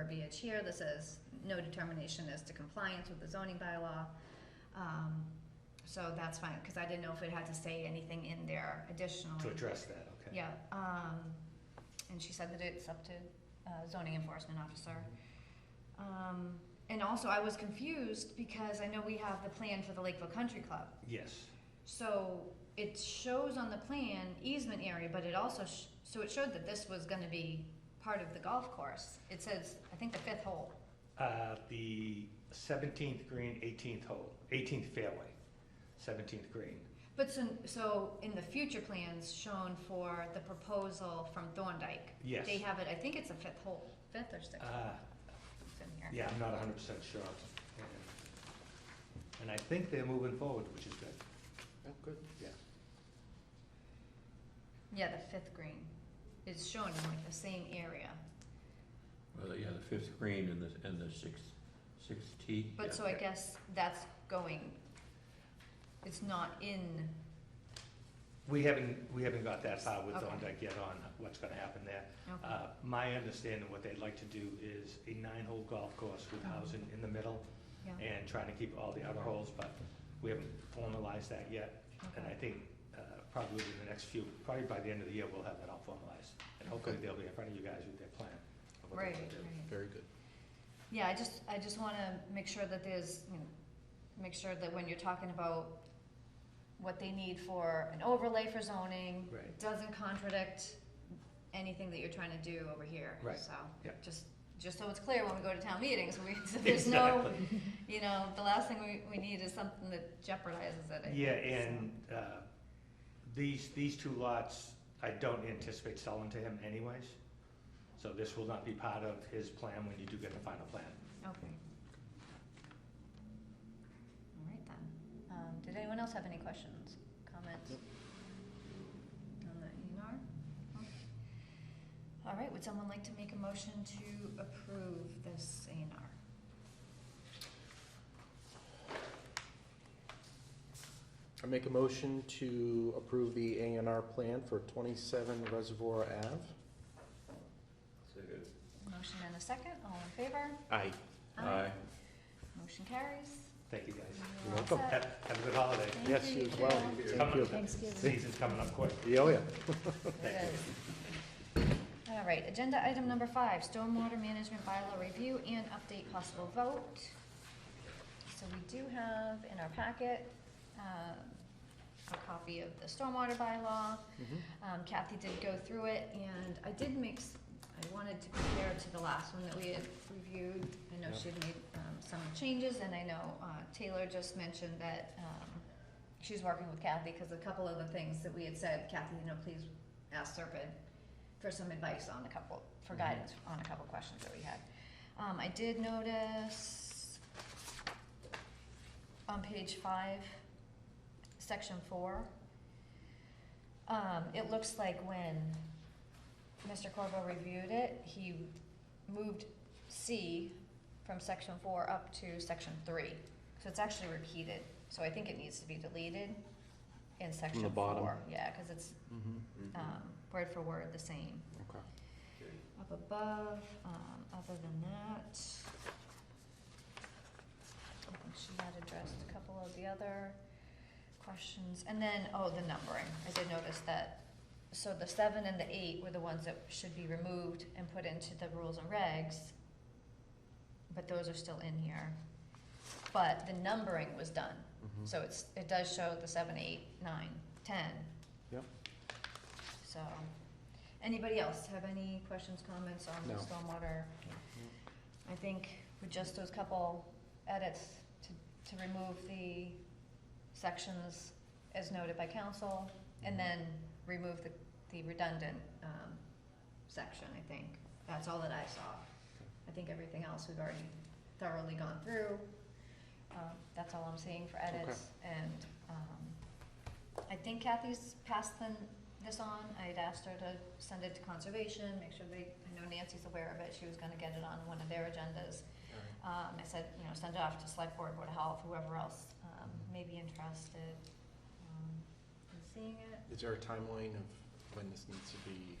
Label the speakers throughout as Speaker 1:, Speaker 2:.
Speaker 1: verbiage here that says no determination as to compliance with the zoning bylaw. Um, so that's fine, cause I didn't know if it had to say anything in there additionally.
Speaker 2: to address that, okay?
Speaker 1: Yeah, um, and she said that it's up to uh, zoning enforcement officer. Um, and also I was confused because I know we have the plan for the Lakeville Country Club.
Speaker 2: Yes,
Speaker 1: So it shows on the plan easement area, but it also, sh- so it showed that this was gonna be part of the golf course. It says, I think the fifth hole.
Speaker 2: uh, the seventeenth green, eighteenth hole, eighteenth fairway, seventeenth green.
Speaker 1: But so, so in the future plans shown for the proposal from Thorndike,
Speaker 2: Yes.
Speaker 1: they have it, I think it's a fifth hole, fifth or sixth,
Speaker 2: Ah,
Speaker 1: it's in here.
Speaker 2: yeah, I'm not hundred percent sure. And- And I think they're moving forward, which is good,
Speaker 3: Oh, good.
Speaker 2: yeah.
Speaker 1: Yeah, the fifth green is shown in like the same area,
Speaker 3: Well, yeah, the fifth green and the, and the sixth, sixth tee. yeah.
Speaker 1: but so I guess that's going, it's not in,
Speaker 2: We haven't, we haven't got that far with
Speaker 1: Okay.
Speaker 2: Thorndike yet on what's gonna happen there.
Speaker 1: okay,
Speaker 2: Uh, My understanding, what they'd like to do is a nine-hole golf course with housing in the middle
Speaker 1: yeah,
Speaker 2: and trying to keep all the other holes, but we haven't formalized that yet. And I
Speaker 1: okay,
Speaker 2: think uh, probably within the next few, probably by the end of the year, we'll have that all formalized. And hopefully
Speaker 3: Okay.
Speaker 2: they'll be in front of you guys with their plan. of what they
Speaker 1: right, right.
Speaker 2: wanna do.
Speaker 3: Very good.
Speaker 1: Yeah, I just, I just wanna make sure that there's, you know, make sure that when you're talking about what they need for an overlay for zoning,
Speaker 2: Right.
Speaker 1: it doesn't contradict anything that you're trying to do over here,
Speaker 2: Right,
Speaker 1: so.
Speaker 2: yeah.
Speaker 1: Just, just so it's clear when we go to town meetings, we, so there's no,
Speaker 2: Exactly.
Speaker 1: you know, the last thing we, we need is something that jeopardizes it, I think,
Speaker 2: Yeah,
Speaker 1: so.
Speaker 2: and uh, these, these two lots, I don't anticipate selling to him anyways. So this will not be part of his plan when you do get the final plan.
Speaker 1: Okay. All right then. Um, did anyone else have any questions, comments? On the E and R? No? All right, would someone like to make a motion to approve this A and R?
Speaker 4: I make a motion to approve the A and R plan for twenty-seven Reservoir Ave.
Speaker 3: Second.
Speaker 1: Motion and a second, all in favor?
Speaker 4: Aye.
Speaker 3: Aye.
Speaker 1: Motion carries.
Speaker 2: Thank you, guys.
Speaker 1: You're all
Speaker 4: welcome.
Speaker 1: set.
Speaker 2: Have have a good holiday.
Speaker 1: Thank
Speaker 4: Yes, you as well.
Speaker 1: too.
Speaker 2: It's
Speaker 4: Thank
Speaker 2: coming
Speaker 4: you.
Speaker 2: up- Season's coming up quick.
Speaker 4: Yeah, oh yeah.
Speaker 1: It
Speaker 2: Thank you.
Speaker 1: is. All right, agenda item number five, stormwater management bylaw review and update possible vote. So we do have in our packet, um, a copy of the stormwater bylaw.
Speaker 4: Mm-hmm,
Speaker 1: Um, Kathy did go through it, and I did mix, I wanted to compare it to the last one that we had reviewed. I know
Speaker 2: Yeah.
Speaker 1: she had made, um, some changes, and I know, uh, Taylor just mentioned that, um, she's working with Kathy, cause a couple of the things that we had said, Kathy, you know, please ask Serpent for some advice on a couple, for
Speaker 2: Mhm.
Speaker 1: guidance on a couple questions that we had. Um, I did notice on page five, section four, um, it looks like when Mr. Corvo reviewed it, he moved C from section four up to section three. So it's actually repeated, so I think it needs to be deleted in section four.
Speaker 4: bottom.
Speaker 1: Yeah, cause it's,
Speaker 4: Mm-hmm.
Speaker 1: um, word for word the same.
Speaker 4: Okay.
Speaker 1: Up above, um, other than that, I think she had addressed a couple of the other questions. And then, oh, the numbering, I did notice that, so the seven and the eight were the ones that should be removed and put into the rules and regs. But those are still in here. But the numbering was done,
Speaker 4: mm-hmm.
Speaker 1: so it's, it does show the seven, eight, nine, ten.
Speaker 4: Yep.
Speaker 1: So, anybody else have any questions, comments on the
Speaker 4: No. Mm-hmm.
Speaker 1: stormwater? I think with just those couple edits to, to remove the sections as noted by council, and then remove the, the redundant, um, section, I think. That's all that I saw. I think everything else we've already thoroughly gone through. Um, that's all I'm seeing for edits, and, um, I think Kathy's passed them, this on. I had asked her to send it to conservation, make sure they, I know Nancy's aware of it, she was gonna get it on one of their agendas. Um, I said, you know, send it off to select board, board of health, whoever else, um, may be interested, um, in seeing it.
Speaker 4: Is there a timeline of when this needs to be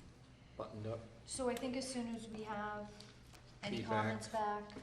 Speaker 4: buttoned up?
Speaker 1: So I think as soon as we have Any
Speaker 4: Feedback.
Speaker 1: comments back?